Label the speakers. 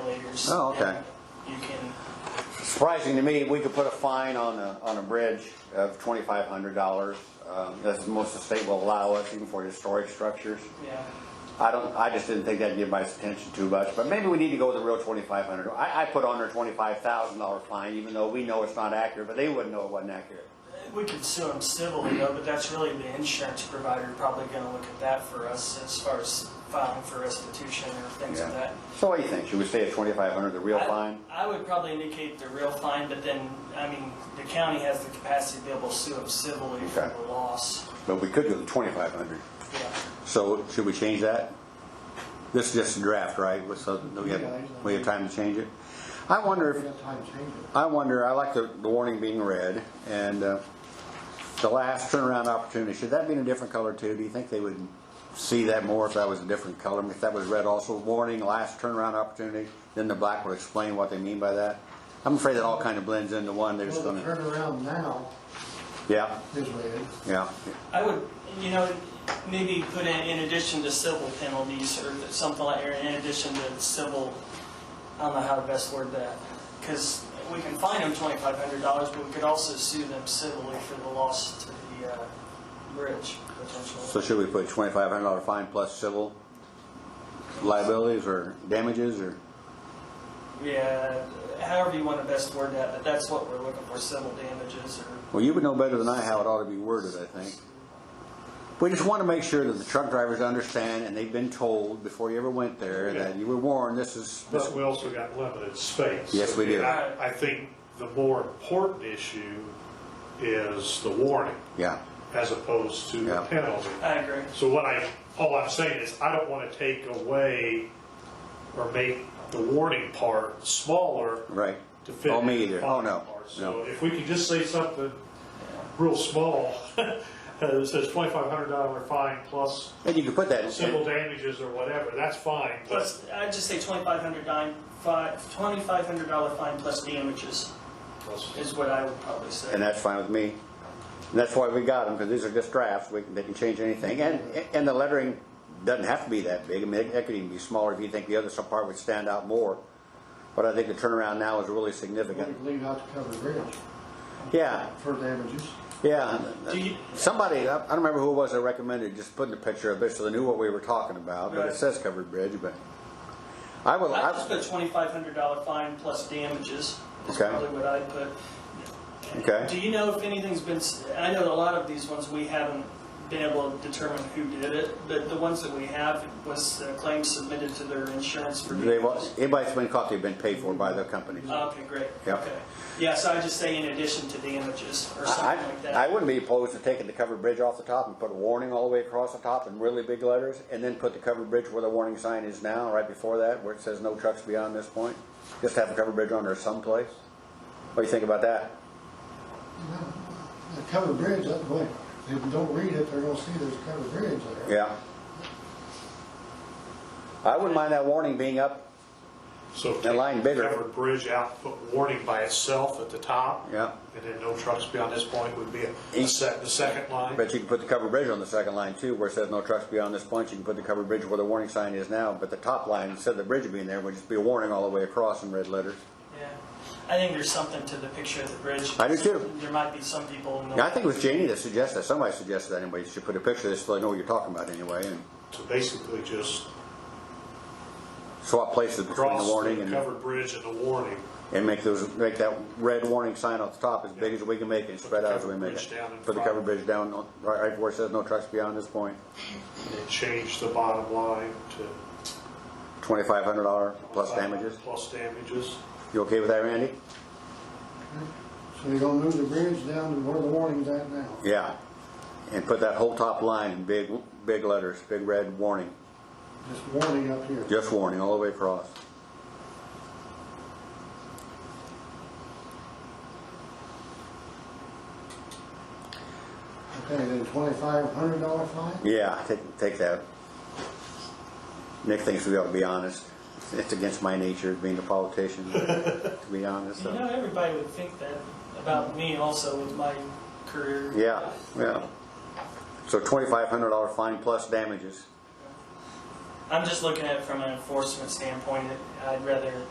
Speaker 1: bridges.
Speaker 2: Oh, okay.
Speaker 1: You can,
Speaker 2: Surprising to me, we could put a fine on a, on a bridge of twenty-five hundred dollars. Um, That's the most the state will allow us, even for historic structures.
Speaker 1: yeah,
Speaker 2: I don't, I just didn't think that'd give my attention too much, but maybe we need to go with the real twenty-five hundred. I, I put on there twenty-five thousand dollar fine, even though we know it's not accurate, but they wouldn't know it wasn't accurate.
Speaker 1: we could sue them civilly though, but that's really the insurance provider probably gonna look at that for us as far as filing for restitution or things of that.
Speaker 2: So what do you think? Should we stay at twenty-five hundred, the real
Speaker 1: I-
Speaker 2: fine?
Speaker 1: I would probably indicate the real fine, but then, I mean, the county has the capacity to be able to sue them civilly for
Speaker 2: Okay.
Speaker 1: the loss.
Speaker 2: But we could do the twenty-five hundred.
Speaker 1: Yeah.
Speaker 2: So should we change that? This is just a draft, right? So do we
Speaker 3: Yeah.
Speaker 2: have, we have time to change it? I wonder if,
Speaker 3: We have time to change it.
Speaker 2: I wonder, I like the, the warning being red, and uh, the last turnaround opportunity, should that be in a different color too? Do you think they would see that more if that was a different color? If that was red also, warning, last turnaround opportunity, then the black will explain what they mean by that? I'm afraid that all kind of blends into one, they're just
Speaker 3: Well, the
Speaker 2: gonna,
Speaker 3: turnaround now
Speaker 2: yeah,
Speaker 3: is red.
Speaker 2: yeah.
Speaker 1: I would, you know, maybe put in, in addition to civil penalties or something like, or in addition to civil, I don't know how to best word that. Because we can fine them twenty-five hundred dollars, but we could also sue them civilly for the loss to the, uh, bridge
Speaker 2: So
Speaker 1: potentially.
Speaker 2: should we put twenty-five hundred dollar fine plus civil liabilities or damages or?
Speaker 1: Yeah, however you want to best word that, but that's what we're looking for, civil damages or,
Speaker 2: Well, you would know better than I how it ought to be worded, I think. We just want to make sure that the truck drivers understand, and they've been told before you ever went there, that you were warned, this is, this-
Speaker 4: But we also got limited space.
Speaker 2: Yes, we do.
Speaker 4: I, I think the more important issue is the warning
Speaker 2: yeah,
Speaker 4: as opposed to the
Speaker 2: Yeah.
Speaker 4: penalty.
Speaker 1: I agree.
Speaker 4: So what I, all I'm saying is I don't want to take away or make the warning part smaller
Speaker 2: right.
Speaker 4: to fit.
Speaker 2: Oh,
Speaker 4: in
Speaker 2: me
Speaker 4: the
Speaker 2: either,
Speaker 4: fine
Speaker 2: oh, no,
Speaker 4: part. So
Speaker 2: no.
Speaker 4: if we could just say something real small, that says $2,500 fine plus
Speaker 2: And you could put that,
Speaker 4: civil
Speaker 2: in-
Speaker 4: damages or whatever, that's fine. But
Speaker 1: Plus, I'd just say twenty-five hundred dime, five, twenty-five hundred dollar fine plus damages
Speaker 4: plus-
Speaker 1: is what I would probably say.
Speaker 2: and that's fine with me. And that's why we got them, because these are just drafts, we can, they can change anything, and, and the lettering doesn't have to be that big, I mean, it- it could even be smaller if you think the other some part would stand out more. But I think the turnaround now is really
Speaker 3: We
Speaker 2: significant,
Speaker 3: could leave out the covered bridge
Speaker 2: yeah.
Speaker 3: for damages.
Speaker 2: Yeah,
Speaker 1: Do you-
Speaker 2: somebody, I I don't remember who it was that recommended just putting a picture of it so they knew what we were talking about, but it
Speaker 1: Right.
Speaker 2: says covered bridge, but I will,
Speaker 1: I just put a
Speaker 2: I,
Speaker 1: twenty-five hundred dollar fine plus damages. Is
Speaker 2: Okay.
Speaker 1: probably what I'd put. Do
Speaker 2: okay,
Speaker 1: you know if anything's been, s- I know a lot of these ones we haven't been able to determine who did it, but the ones that we have was the claim submitted to their insurance for.
Speaker 2: they, wa-
Speaker 1: damages.
Speaker 2: anybody's been caught, they've been paid for by the company. I,
Speaker 1: Okay, great.
Speaker 2: Yeah.
Speaker 1: Okay. Yeah, so I just say in addition to damages or something like
Speaker 2: I
Speaker 1: that.
Speaker 2: wouldn't be opposed to taking the covered bridge off the top and put a warning all the way across the top in really big letters, and then put the covered bridge where the warning sign is now, right before that, where it says no trucks beyond this point, just have a covered bridge on there someplace. What do you think about that?
Speaker 3: The covered bridge, that's what, if you don't read it, they're gonna see there's a covered bridge there.
Speaker 2: Yeah. I wouldn't mind that warning being up
Speaker 4: So
Speaker 2: That line bigger.
Speaker 4: Covered bridge out, put warning by itself at the top.
Speaker 2: Yeah.
Speaker 4: And then no trucks beyond this point would be a- a
Speaker 2: Each-
Speaker 4: sec, the second line.
Speaker 2: But you can put the covered bridge on the second line too, where it says no trucks beyond this point, you can put the covered bridge where the warning sign is now, but the top line, instead of the bridge being there, would just be a warning all the way across in red letters.
Speaker 1: Yeah. I think there's something to the picture of the bridge.
Speaker 2: I do too.
Speaker 1: There might be some people in the.
Speaker 2: Yeah, I think it was Janie that suggested, that. somebody suggested that anyway, you should put a picture of this so they know what you're talking about anyway, and
Speaker 4: So basically just
Speaker 2: swap places between the
Speaker 4: cross
Speaker 2: warning
Speaker 4: the
Speaker 2: and,
Speaker 4: covered bridge and the warning.
Speaker 2: and make those, make that red warning sign on the top as big as we can make it, and spread out as we
Speaker 4: covered
Speaker 2: make
Speaker 4: bridge
Speaker 2: it.
Speaker 4: down in
Speaker 2: Put the
Speaker 4: front.
Speaker 2: covered bridge down, on- right right where it says no trucks beyond this point,
Speaker 4: And change the bottom line to.
Speaker 2: twenty-five hundred dollar plus damages.
Speaker 4: Plus damages.
Speaker 2: You okay with that, Randy?
Speaker 3: So you're gonna move the bridge down to where the warning's at now.
Speaker 2: Yeah, and put that whole top line in big, big letters, big red warning,
Speaker 3: Just warning up here.
Speaker 2: just warning all the way across.
Speaker 3: Okay, then twenty-five hundred dollar fine?
Speaker 2: Yeah, take, take that. Nick thinks we ought to be honest. It's against my nature being a politician, to be honest,
Speaker 1: You know,
Speaker 2: so.
Speaker 1: everybody would think that about me also with my career.
Speaker 2: Yeah, yeah. So twenty-five hundred dollar fine plus damages.
Speaker 1: I'm just looking at it from an enforcement standpoint. I'd rather